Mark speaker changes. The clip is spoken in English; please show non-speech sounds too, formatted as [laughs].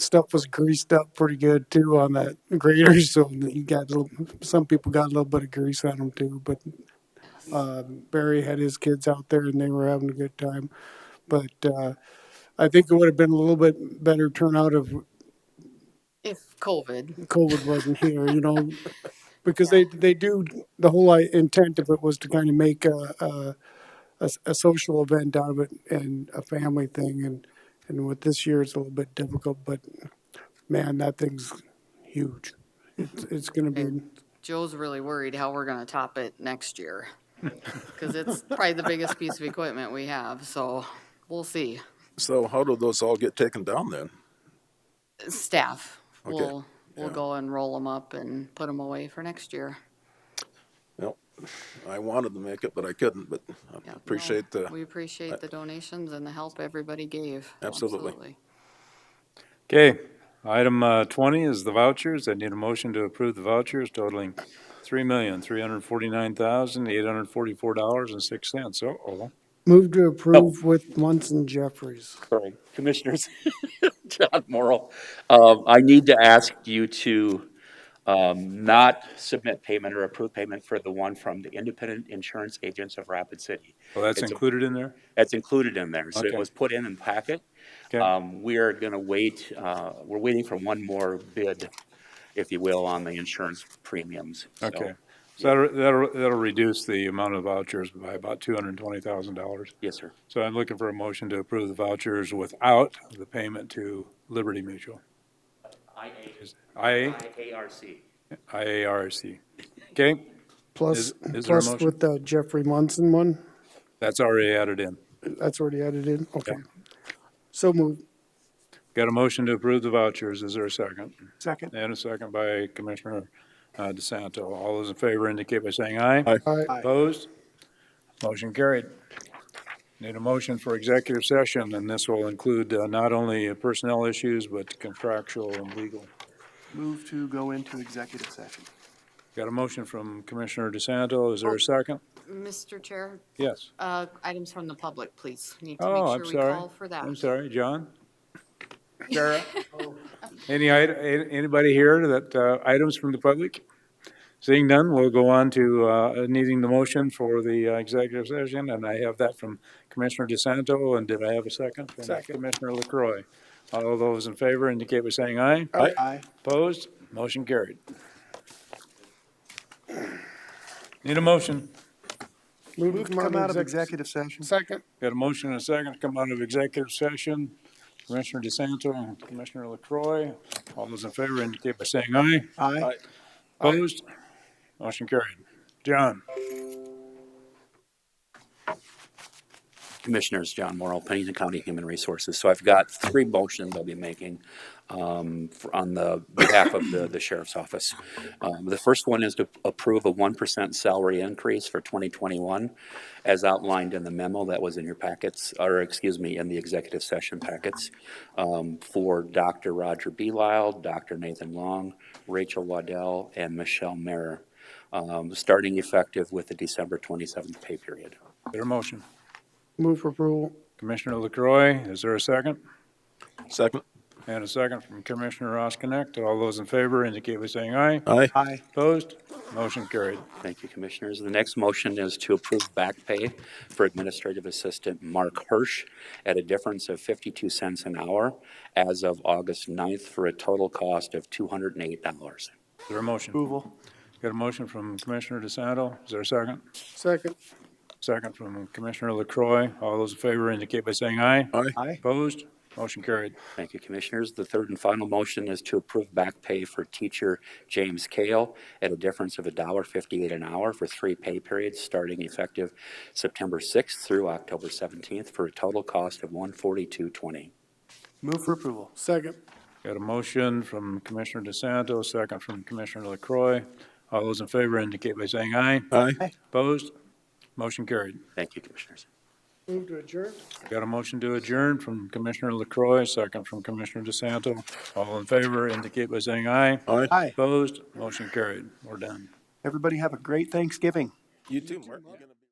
Speaker 1: stuff was greased up pretty good too on that grater, [laughs] so you got a little, some people got a little bit of grease on them too. But uh, Barry had his kids out there, and they were having a good time. But uh, I think it would have been a little bit better turnout if
Speaker 2: if COVID.
Speaker 1: COVID wasn't here, you know, because
Speaker 2: Yeah.
Speaker 1: they they do the whole i- intent of it was to kind of make a, a, a s- a social event out of it and a family thing, and and with this year it's a little bit difficult, but man, that thing's huge. It's it's going to
Speaker 2: And
Speaker 1: be
Speaker 2: Joe's really worried how we're gonna top it next
Speaker 3: [laughs]
Speaker 2: year. Cause it's probably the biggest piece of equipment we have, so we'll see.
Speaker 3: So how do those all get taken down then?
Speaker 2: Staff
Speaker 3: Okay.
Speaker 2: will, will
Speaker 3: Yeah.
Speaker 2: go and roll them up and put them away for next year.
Speaker 3: Well, I wanted to make it, but I couldn't, but I
Speaker 2: Yeah, no,
Speaker 3: appreciate the,
Speaker 2: we appreciate the donations and the help everybody gave.
Speaker 3: absolutely.
Speaker 2: Absolutely.
Speaker 4: Okay, item uh, 20 is the vouchers. I need a motion to approve the vouchers totaling $3,349,844.06. Uh-oh.
Speaker 1: moved to
Speaker 5: Oh,
Speaker 1: approve with Munson Jeffries.
Speaker 5: sorry, Commissioners, [laughs] John Morrell. Um, I need to ask you to um, not submit payment or approve payment for the one from the Independent Insurance Agents of Rapid City.
Speaker 4: Well, that's
Speaker 5: It's a
Speaker 4: included in there?
Speaker 5: That's included in there, so it
Speaker 4: Okay,
Speaker 5: was put in in packet.
Speaker 4: okay.
Speaker 5: Um, We are going to wait, uh, we're waiting for one more bid, if you will, on the insurance premiums, so,
Speaker 4: Okay. So that'll, that'll that'll reduce the amount of vouchers by about $220,000.
Speaker 5: yes, sir.
Speaker 4: So I'm looking for a motion to approve the vouchers without the payment to Liberty Mutual. Is- IA,
Speaker 5: IARC.
Speaker 4: IARC. Okay,
Speaker 1: Plus
Speaker 4: is, is there a
Speaker 1: plus
Speaker 4: motion?
Speaker 1: with the Jeffrey Munson one,
Speaker 4: That's already added in.
Speaker 1: that's already added in.
Speaker 4: Okay.
Speaker 1: Okay, so moved.
Speaker 4: Got a motion to approve the vouchers. Is there a second?
Speaker 1: Second.
Speaker 4: And a second by Commissioner uh, DeSanto. All those in favor indicate by saying aye.
Speaker 3: Aye.
Speaker 1: All right.
Speaker 4: Opposed? Motion carried. Need a motion for executive session, and this will include uh, not only personnel issues, but contractual and legal.
Speaker 6: Move to go into executive session.
Speaker 4: Got a motion from Commissioner DeSanto. Is there a second?
Speaker 2: Mr. Chair,
Speaker 4: Yes.
Speaker 2: uh, items from the public, please. Need to make
Speaker 4: Oh, I'm
Speaker 2: sure we
Speaker 4: sorry.
Speaker 2: call for that.
Speaker 4: I'm sorry, John? Sarah? [laughs] Any, ite- a- anybody here that, uh, items from the public? Seeing none, we'll go on to uh, needing the motion for the uh, executive session, and I have that from Commissioner DeSanto, and did I have a second? From
Speaker 1: Second.
Speaker 4: Commissioner LaCroy. All those in favor indicate by saying aye.
Speaker 3: Aye.
Speaker 6: Aye.
Speaker 4: Opposed? Motion carried. Need a motion?
Speaker 1: Move
Speaker 6: Move to come out of executive session.
Speaker 1: Second.
Speaker 4: Got a motion and a second to come out of executive session. Commissioner DeSanto and Commissioner LaCroy. All those in favor indicate by saying aye.
Speaker 6: Aye.
Speaker 3: Aye.
Speaker 4: Opposed? Motion carried. John?
Speaker 5: Commissioners, John Morrell, Pennington County Human Resources. So I've got three motions I'll be making um, for- on the behalf of the the sheriff's office. Um, The first one is to approve a 1% salary increase for 2021 as outlined in the memo that was in your packets, or excuse me, in the executive session packets um, for Dr. Roger Belisle, Dr. Nathan Long, Rachel Waddell, and Michelle Mayer, um, starting effective with the December 27th pay period.
Speaker 4: Their motion.
Speaker 1: Move for approval.
Speaker 4: Commissioner LaCroy, is there a second?
Speaker 3: Second?
Speaker 4: And a second from Commissioner Ross Connect. All those in favor indicate by saying aye.
Speaker 3: Aye.
Speaker 6: Aye.
Speaker 4: Opposed? Motion carried.
Speaker 5: Thank you, Commissioners. The next motion is to approve back pay for Administrative Assistant Mark Hirsch at a difference of 52 cents an hour as of August 9th for a total cost of $208.
Speaker 4: Their motion.
Speaker 6: Approval.
Speaker 4: Got a motion from Commissioner DeSanto. Is there a second?
Speaker 1: Second.
Speaker 4: Second from Commissioner LaCroy. All those in favor indicate by saying aye.
Speaker 3: Aye.
Speaker 6: Aye.
Speaker 4: Opposed? Motion carried.
Speaker 5: Thank you, Commissioners. The third and final motion is to approve back pay for teacher James Kale at a difference of $1.58 an hour for three pay periods starting effective September 6th through October 17th for a total cost of $142.20.
Speaker 6: Move for approval.
Speaker 1: Second.
Speaker 4: Got a motion from Commissioner DeSanto, second from Commissioner LaCroy. All those in favor indicate by saying aye.
Speaker 3: Aye.
Speaker 4: Opposed? Motion carried.
Speaker 5: Thank you, Commissioners.
Speaker 1: Move to adjourn.
Speaker 4: Got a motion to adjourn from Commissioner LaCroy, second from Commissioner DeSanto. All in favor indicate by saying aye.
Speaker 3: Aye.
Speaker 6: Aye.
Speaker 4: Opposed? Motion carried. We're done.
Speaker 6: Everybody have a great Thanksgiving.
Speaker 3: You too, Mark. You gonna-